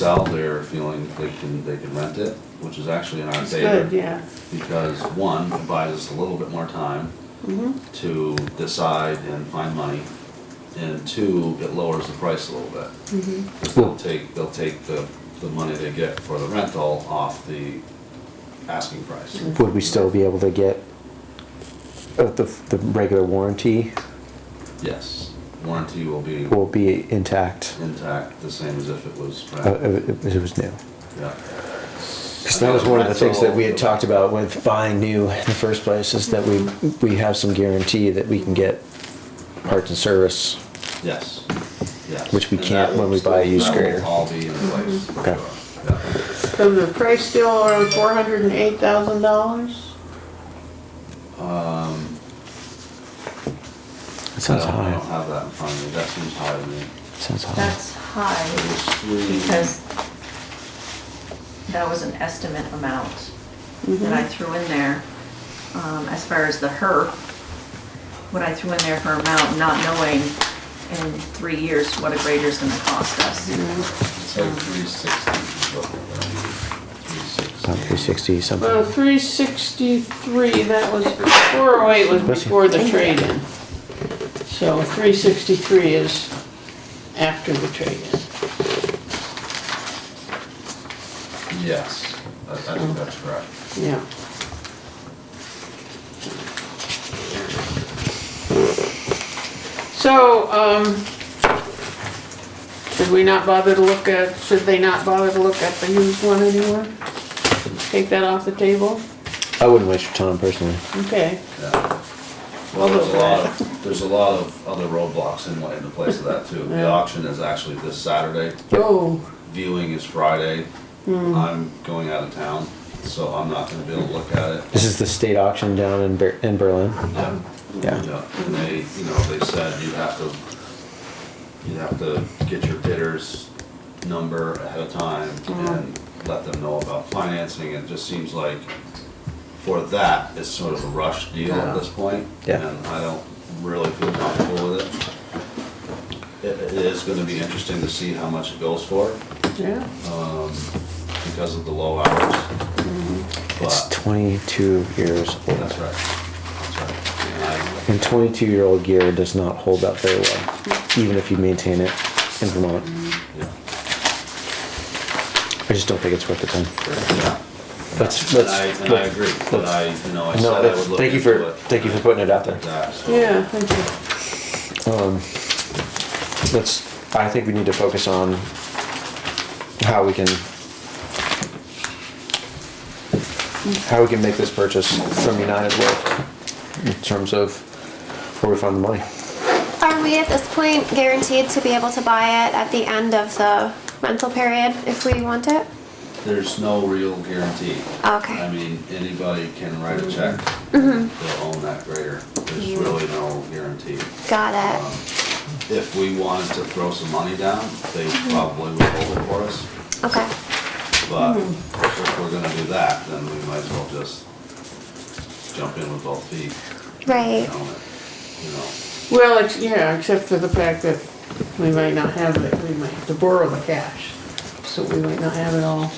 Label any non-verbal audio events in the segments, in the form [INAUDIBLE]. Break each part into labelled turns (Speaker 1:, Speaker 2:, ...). Speaker 1: sell, they're feeling they can, they can rent it, which is actually in our
Speaker 2: It's good,
Speaker 1: favor.
Speaker 2: yeah.
Speaker 1: Because one, it buys us a little bit more time
Speaker 2: Mhm.
Speaker 1: to decide and find money. And two, it lowers the price a little bit.
Speaker 2: Mm-hmm.
Speaker 1: Because they'll take, they'll take the, the money they get for the rental off the asking price.
Speaker 2: Mm.
Speaker 3: Would we still be able to get uh, the, the regular warranty
Speaker 1: Yes, warranty will be
Speaker 3: will be intact
Speaker 1: intact, the same as if it was
Speaker 3: uh,
Speaker 1: rent,
Speaker 3: if it was new?
Speaker 1: yeah.
Speaker 3: Because that was one of the things that we had talked about with buying new in the first place is that we, we have some guarantee that we can get parts and service.
Speaker 1: Yes, yes.
Speaker 3: Which we
Speaker 1: And
Speaker 3: can't
Speaker 1: that will
Speaker 3: when we buy a
Speaker 1: still-
Speaker 3: used
Speaker 1: that will
Speaker 3: grader. Mm-hmm.
Speaker 1: all be in place. for
Speaker 3: Okay.
Speaker 1: sure. Yeah.
Speaker 2: So the price still around four hundred and eight thousand dollars?
Speaker 3: That
Speaker 1: I
Speaker 3: sounds
Speaker 1: don't, I don't
Speaker 3: high.
Speaker 1: have that in front of me, that seems high to me.
Speaker 3: Uh, Sounds high.
Speaker 4: That's
Speaker 1: It
Speaker 4: high
Speaker 1: was three.
Speaker 4: because that was an estimate amount that I threw in there. Um, As far as the HERF, what I threw in there for amount, not knowing in three years what a grader's gonna cost
Speaker 1: Mm-hmm.
Speaker 4: us.
Speaker 1: It's like three sixty, three sixty.
Speaker 3: About 360
Speaker 2: Well,
Speaker 3: something.
Speaker 2: three sixty-three, that was, four oh eight was before the trade-in. So three sixty-three is after the trade-in.
Speaker 1: Yes, I I think that's correct.
Speaker 2: Yeah. So, um, should we not bother to look at, should they not bother to look at the used one anymore? Take that off the table?
Speaker 3: I wouldn't waste your time personally.
Speaker 2: Okay,
Speaker 1: Yeah. Well,
Speaker 2: Well,
Speaker 1: there's a
Speaker 2: look
Speaker 1: lot
Speaker 2: at
Speaker 1: of, there's a lot of other roadblocks in, in the place of that too. The
Speaker 2: Yeah.
Speaker 1: auction is actually this Saturday,
Speaker 2: oh,
Speaker 1: viewing is Friday. I'm going out of town, so I'm not gonna be able to look at it.
Speaker 3: This is the state auction down in, Ber- in Berlin.
Speaker 1: Yeah.
Speaker 3: Yeah.
Speaker 1: Yeah, and they, you know, they said you have to, you have to get your bidder's number ahead of time and let them know about financing. It just seems like for that, it's sort of a rush deal at this point.
Speaker 3: Yeah.
Speaker 1: And I don't really feel comfortable with it. It, it is gonna be interesting to see how much it goes for,
Speaker 2: yeah.
Speaker 1: um, because of the low hours.
Speaker 3: It's
Speaker 1: But,
Speaker 3: 22 years
Speaker 1: that's
Speaker 3: old.
Speaker 1: right, that's right. And I-
Speaker 3: And 22 year old gear does not hold up very well, even if you maintain it in Vermont.
Speaker 1: yeah.
Speaker 3: I just don't think it's worth the time.
Speaker 1: Yeah.
Speaker 3: Let's,
Speaker 1: And
Speaker 3: let's.
Speaker 1: I, and I agree, but I, you know, I said
Speaker 3: No,
Speaker 1: I
Speaker 3: that's-
Speaker 1: would look
Speaker 3: thank you
Speaker 1: into
Speaker 3: for,
Speaker 1: it.
Speaker 3: thank you for putting it out there.
Speaker 1: Yeah, so-
Speaker 2: Yeah, thank you.
Speaker 3: Let's, I think we need to focus on how we can, how we can make this purchase from United work in terms of where we find the money.
Speaker 5: Are we at this point guaranteed to be able to buy it at the end of the rental period if we want it?
Speaker 1: There's no real guarantee.
Speaker 5: Okay.
Speaker 1: I mean, anybody can write a check, they'll own that grader, there's really no guarantee.
Speaker 5: Got
Speaker 1: Um,
Speaker 5: it.
Speaker 1: If we wanted to throw some money down, they probably would hold it for us,
Speaker 5: Okay.
Speaker 1: but if we're gonna do that, then we might as well just jump in with both feet.
Speaker 5: Right.
Speaker 1: and own it, You know,
Speaker 2: Well, it's, yeah, except for the fact that we might not have it, we might have to borrow the cash. So we might not have it all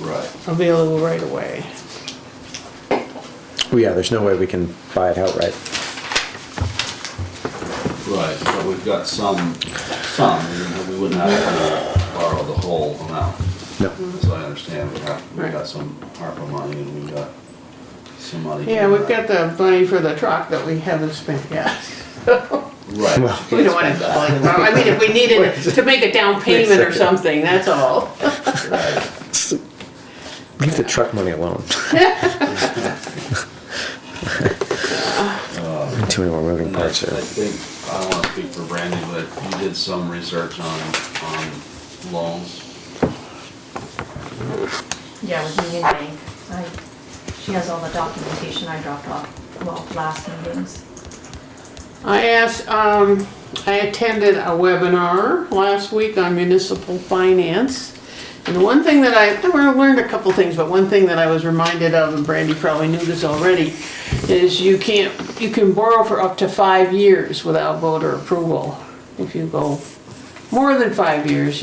Speaker 1: right,
Speaker 2: available right away.
Speaker 3: Well, yeah, there's no way we can buy it outright.
Speaker 1: right, but we've got some, some, we wouldn't have to borrow the whole amount.
Speaker 3: No.
Speaker 1: So I understand, we have, we
Speaker 2: Right.
Speaker 1: got some ARPA money and we got some money.
Speaker 2: Yeah, we've got the money for the truck that we haven't spent yet.
Speaker 1: Right,
Speaker 2: [LAUGHS] We don't wanna, like, well, I mean, if we needed it to make a down payment or something, that's all.
Speaker 3: Leave the truck money alone. Too many more moving
Speaker 1: and I, I
Speaker 3: parts here.
Speaker 1: think, I don't wanna speak for Brandy, but you did some research on, on loans.
Speaker 4: Yeah, with Union Bank. I- She has all the documentation I dropped off, well, last meetings.
Speaker 2: I asked, um, I attended a webinar last week on municipal finance. And one thing that I, I learned a couple things, but one thing that I was reminded of, and Brandy probably knew this already, is you can't, you can borrow for up to five years without voter approval. If you go more than five years,